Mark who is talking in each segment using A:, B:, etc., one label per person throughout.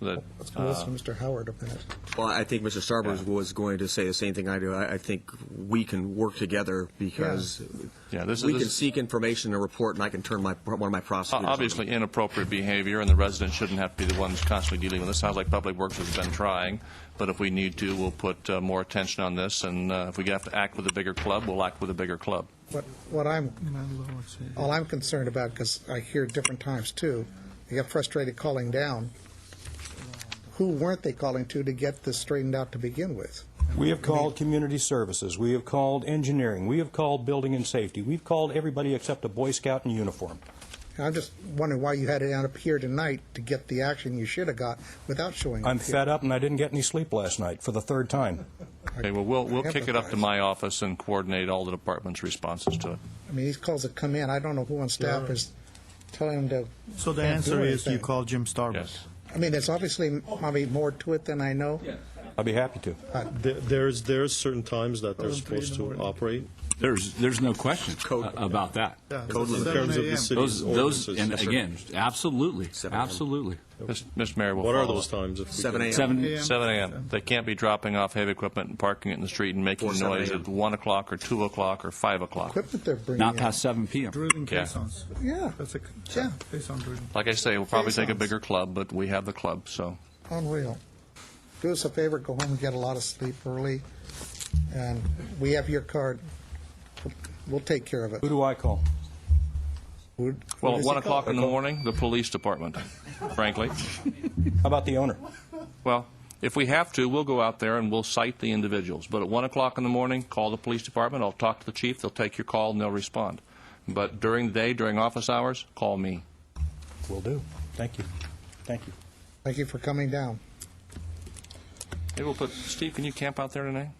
A: that, uh,
B: We'll Listen to Mr. Howard a minute.
C: Well, I think Mr. Starburns
A: Yeah.
C: was going to say the same thing I do. I, I think we can work together because
A: Yeah, this is-
C: we
A: this-
C: can seek information and report, and I can turn my one of my prosecutors. on.
A: obviously inappropriate behavior, and the residents shouldn't have to be the ones constantly dealing with this. Sounds like Public Works has been trying, but if we need to, we'll put uh, more attention on this, and uh, if we have to act with a bigger club, we'll act with a bigger club.
B: What, what I'm, all I'm concerned about, because I hear different times too, they get frustrated calling down. Who weren't they calling to to get this straightened out to begin with?
D: We have called community services. We have called engineering. We have called building and safety. We've called everybody except a Boy Scout in uniform.
B: And I'm just wondering why you had it out up here tonight to get the action you should have got without showing
D: I'm
B: up here.
D: fed up and I didn't get any sleep last night for the third time.
A: Okay, well, we'll, we'll kick it up to
B: Empathize.
A: my office and coordinate all the department's responses to it.
B: I mean, these calls have come in, I don't know who on staff is telling them to.
E: So the
B: can't do
E: answer is you
B: anything.
E: call Jim Starbucks.
A: Yes.
B: I mean, there's obviously probably more to it than I know.
D: I'd be happy to.
F: There- There's, there's certain times that they're supposed to operate
G: There's, there's no question about that.
C: Code
F: in
C: limit.
F: terms of the city's
G: Those, those,
F: ordinances.
G: and again, absolutely,
C: 7 a.m.
G: absolutely.
A: Mis- Mr. Mayor, we'll
F: What are
A: follow
F: those
A: up.
F: times? if we
C: Seven
F: can-
C: a.m.
G: Seven,
A: 7 a.m. They can't be dropping off heavy equipment and parking it in the street and making
C: Or 7
A: noise
C: a.m.
A: at 1 o'clock or 2 o'clock or 5 o'clock.
B: Equipment they're bringing
G: not
B: in.
G: past seven PM.
E: Driven
A: Yeah.
E: caissons.
B: Yeah,
E: That's a,
B: Yeah.
E: caisson driven.
A: Like I say, we'll probably take a
E: Sounds-
A: bigger club, but we have the club, so.
B: unreal. Do us a favor, go home and get a lot of sleep early, and we have your card. We'll take care of it.
D: Who do I call?
B: Who- who
A: Well, at
B: does
A: 1
B: he call?
A: o'clock in the morning, the police department, frankly.
D: How about the owner?
A: Well, if we have to, we'll go out there and we'll cite the individuals. But at 1 o'clock in the morning, call the police department, I'll talk to the chief, they'll take your call, and they'll respond. But during the day, during office hours, call me.
D: Will do. Thank you. Thank you.
B: Thank you for coming down.
A: Maybe we'll put, Steve, can you camp out there tonight?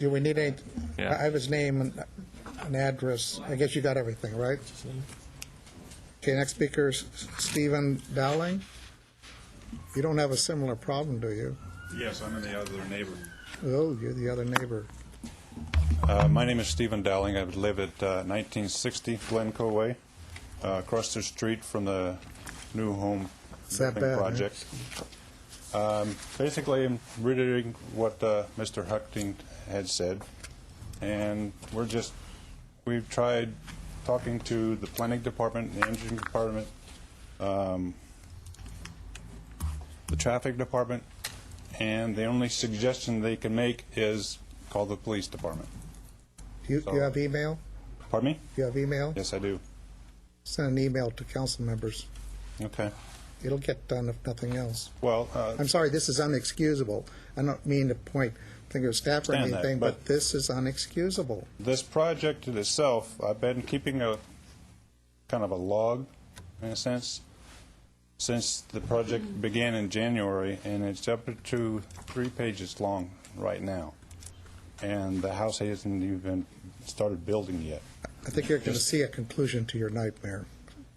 B: Do we need any,
A: Yeah.
B: I have his name and an address. I guess you got everything, right? Okay, next speaker is Stephen Dowling. You don't have a similar problem, do you?
H: Yes, I'm in the other neighbor.
B: Oh, you're the other neighbor.
H: Uh, my name is Stephen Dowling. I live at uh, 1960 Glencoe Way, uh, across the street from the new home
B: It's that
H: building
B: bad, huh?
H: project. Um, basically, I'm reiterating what uh, Mr. Huckting had said, and we're just we've tried talking to the planning department, the engineering department, um, the traffic department, and the only suggestion they can make is call the police department.
B: You, you have email?
H: Pardon me?
B: You have email?
H: Yes, I do.
B: Send an email to council members.
H: Okay.
B: It'll get done if nothing else.
H: Well, uh,
B: I'm sorry, this is unexcusable. I don't mean to point finger at staff or
H: Understand that,
B: anything, but
H: but-
B: this is unexcusable.
H: this project in itself, I've been keeping a kind of a log, in a sense, since the
B: Mm-hmm.
H: project began in January, and it's up to three pages long right now. And the house hasn't even started building yet.
B: I think you're going to see a conclusion to your nightmare.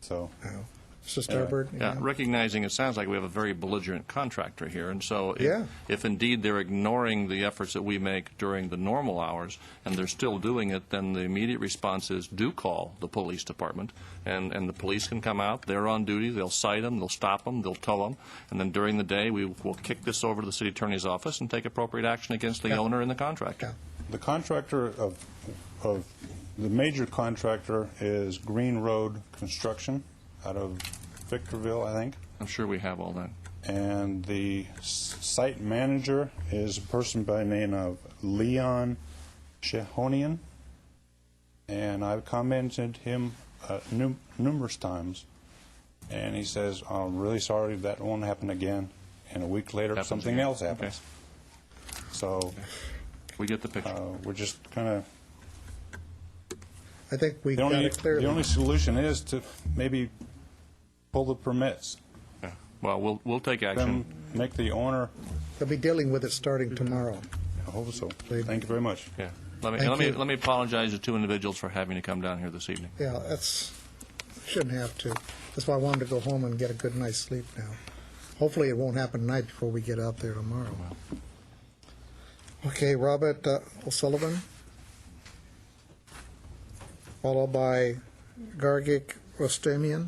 H: So,
B: now. Mr. Starbird?
A: Yeah,
B: yeah.
A: recognizing it sounds like we have a very belligerent contractor here, and so if-
B: Yeah.
A: if indeed they're ignoring the efforts that we make during the normal hours, and they're still doing it, then the immediate response is do call the police department, and, and the police can come out, they're on duty, they'll cite them, they'll stop them, they'll tow them, and then during the day, we will kick this over to the city attorney's office and take appropriate action against the owner and the contractor.
H: the contractor of, of, the major contractor is Green Road Construction out of Victorville, I think.
A: I'm sure we have all that.
H: and the s- site manager is a person by the name of Leon Shehonian, and I've commented him uh, num- numerous times, and he says, "I'm really sorry that won't happen again." And a week later,
A: Happens
H: something
A: again.
H: else happens. So
A: We get the picture.
H: uh, we're just kind of
B: I think we
H: the
B: got
H: only
B: it clearly.
H: the only solution is to maybe pull the permits,
A: Yeah. Well, we'll, we'll take
H: then
A: action.
H: make the owner.
B: They'll be dealing with it starting tomorrow.
H: I hope so. Thank you very much.
A: Yeah. Let me,
B: Thank
A: let me,
B: you.
A: let me apologize to two individuals for having to come down here this evening.
B: Yeah, that's, shouldn't have to. That's why I wanted to go home and get a good night's sleep now. Hopefully, it won't happen tonight before we get out there tomorrow. Okay, Robert uh, O'Sullivan, followed by Gargic Rostamian.